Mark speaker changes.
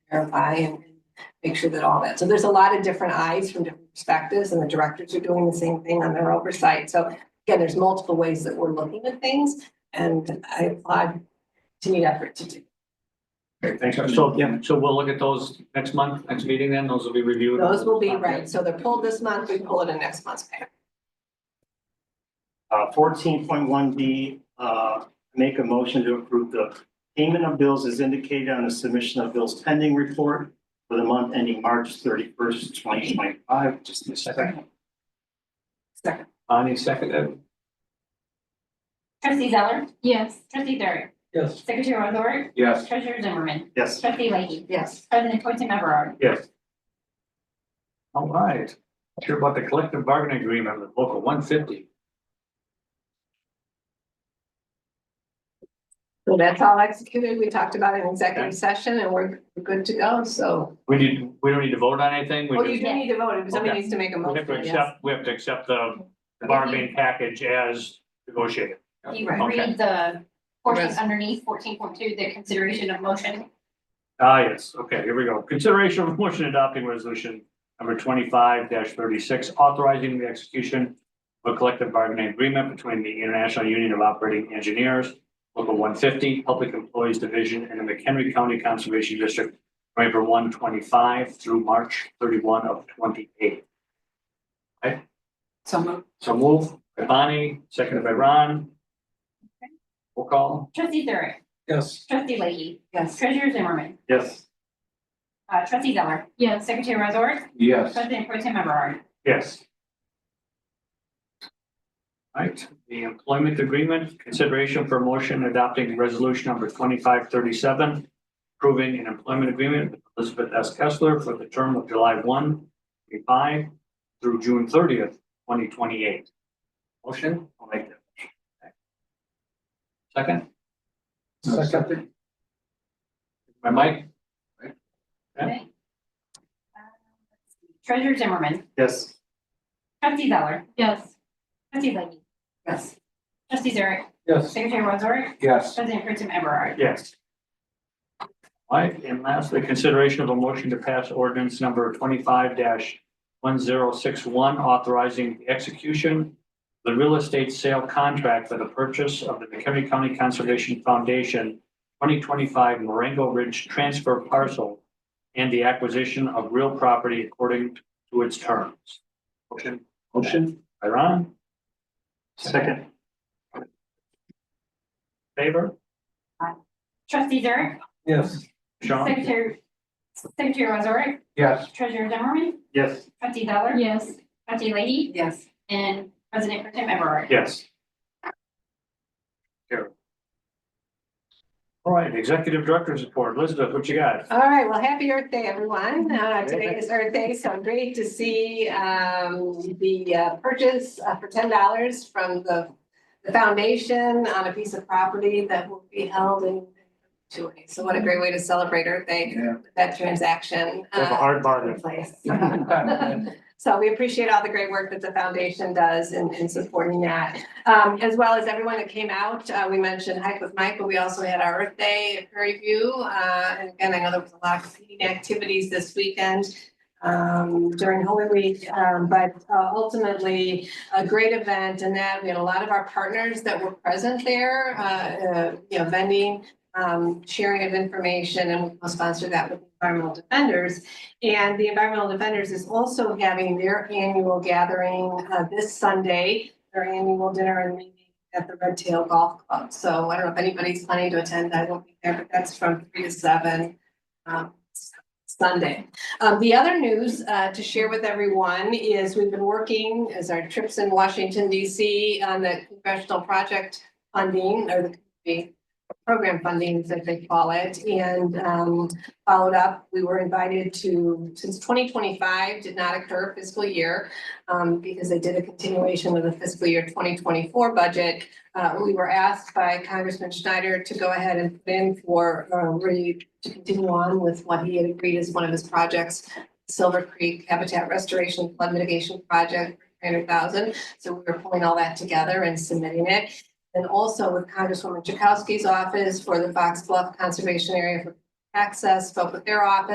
Speaker 1: verify and make sure that all that, so there's a lot of different eyes from different perspectives and the directors are doing the same thing on their oversight. So again, there's multiple ways that we're looking at things and I applaud continued effort to do.
Speaker 2: Okay, thanks.
Speaker 3: So, yeah, so we'll look at those next month, next meeting then, those will be reviewed.
Speaker 1: Those will be right, so they're pulled this month, we pull it in next month's pay.
Speaker 4: Uh, fourteen point one B, uh, make a motion to approve the payment of bills as indicated on the submission of bills pending report for the month ending March thirty-first, twenty twenty-five. Just a second.
Speaker 1: Second,
Speaker 3: Bonnie seconded.
Speaker 5: Trustee Zeller,
Speaker 6: Yes.
Speaker 5: trustee Durian,
Speaker 3: Yes.
Speaker 5: secretary Wazorek,
Speaker 3: Yes.
Speaker 5: treasurer Zimmerman,
Speaker 4: Yes,
Speaker 5: trustee Leahy,
Speaker 1: yes,
Speaker 5: president Pro Tem Everard.
Speaker 3: Yes. All right, sure about the collective bargaining agreement with local one fifty.
Speaker 1: so that's all executed. We talked about it in executive session and we're good to go, so.
Speaker 3: We need, we don't need to vote on anything,
Speaker 1: Well,
Speaker 3: we
Speaker 1: Oh, you
Speaker 3: just,
Speaker 1: do need to vote, if somebody
Speaker 3: Okay.
Speaker 1: needs to make a
Speaker 3: we have to
Speaker 1: motion, yes.
Speaker 3: accept, we have to accept the bargaining package as negotiated.
Speaker 5: You
Speaker 1: Right.
Speaker 5: read the portion
Speaker 1: Rest.
Speaker 5: underneath fourteen point two, the consideration of motion.
Speaker 3: Ah, yes, okay, here we go. Consideration of motion adopting resolution number twenty-five thirty-six, authorizing the execution of a collective bargaining agreement between the International Union of Operating Engineers, Local one fifty, Public Employees Division, and the McHenry County Conservation District, November one twenty-five through March thirty-one of twenty-eight. Okay? So move. So move by Bonnie, seconded by Ron. Roll call.
Speaker 5: Trustee Durian,
Speaker 3: Yes.
Speaker 5: trustee Leahy,
Speaker 1: Yes,
Speaker 5: treasurer Zimmerman,
Speaker 4: yes,
Speaker 5: uh, trustee Zeller,
Speaker 6: Yes.
Speaker 5: secretary Wazorek,
Speaker 3: Yes.
Speaker 5: president Pro Tem Everard.
Speaker 3: Yes. Right, the employment agreement, consideration for motion adopting resolution number twenty-five thirty-seven, approving an employment agreement with Elizabeth S. Kessler for the term of July 1, 25 through June thirtieth, twenty twenty-eight. Motion,
Speaker 4: I'll make that.
Speaker 3: second,
Speaker 2: Second.
Speaker 3: by Mike, Yeah.
Speaker 5: Okay. Uh, let's see. Treasurer Zimmerman,
Speaker 4: Yes,
Speaker 5: trustee Zeller,
Speaker 6: Yes.
Speaker 5: trustee Leahy,
Speaker 1: yes,
Speaker 5: trustee Durian,
Speaker 2: Yes.
Speaker 5: secretary Wazorek,
Speaker 2: Yes.
Speaker 5: president Pro Tem Everard.
Speaker 3: yes. All Right, and lastly, consideration of a motion to pass ordinance number twenty-five one zero six one, authorizing the execution of the real estate sale contract for the purchase of the McHenry County Conservation Foundation twenty twenty-five Marengo Ridge Transfer Parcel and the acquisition of real property according to its terms. Motion
Speaker 2: Motion?
Speaker 3: by Ron,
Speaker 4: second,
Speaker 3: favor,
Speaker 5: Trustee Durian,
Speaker 2: Yes.
Speaker 3: Sean?
Speaker 5: secretary, secretary Wazorek,
Speaker 2: Yes.
Speaker 5: treasurer Zimmerman,
Speaker 4: yes,
Speaker 5: trustee Zeller,
Speaker 6: Yes.
Speaker 5: trustee Leahy,
Speaker 1: yes.
Speaker 5: And President Pro Tem Everard.
Speaker 3: Yes. Here. All right, Executive Director's report. Elizabeth, what you got?
Speaker 1: All right, well, happy Earth Day, everyone. Uh, today is Earth Day, so great to see, um, the uh, purchase uh, for ten dollars from the, the foundation on a piece of property that will be held in perpetuity. So what a great way to celebrate Earth Day,
Speaker 2: Yeah.
Speaker 1: with that transaction.
Speaker 3: Have a
Speaker 1: uh,
Speaker 3: hard bargain.
Speaker 1: Place. So we appreciate all the great work that the foundation does in, in supporting that. Um, as well as everyone that came out, uh, we mentioned Hike with Mike, but we also had our Earth Day at Prairie View. Uh, and again, I know there was a lot of competing activities this weekend, um, during Holy Week. Um, but uh, ultimately, a great event and that we had a lot of our partners that were present there, uh, uh, you know, vending, um, sharing of information and we'll sponsor that with environmental defenders. And the Environmental Defenders is also having their annual gathering uh, this Sunday, their annual dinner and meeting at the Red Tail Golf Club. So I don't know if anybody's planning to attend, I won't be there, but that's from three to seven um, Sunday. Um, The other news uh, to share with everyone is we've been working as our trips in Washington DC on the congressional project funding or the program funding that they call it. And um, followed up. We were invited to, since twenty twenty-five did not occur fiscal year, um, because they did a continuation of the fiscal year twenty twenty-four budget. Uh, we were asked by Congressman Schneider to go ahead and put in for, uh, re, to continue on with what he had agreed is one of his projects, Silver Creek Habitat Restoration Flood Mitigation Project, three hundred thousand. So we were pulling all that together and submitting it. And also with Congresswoman Chakowski's office for the Fox Bluff Conservation Area for access, spoke with their office.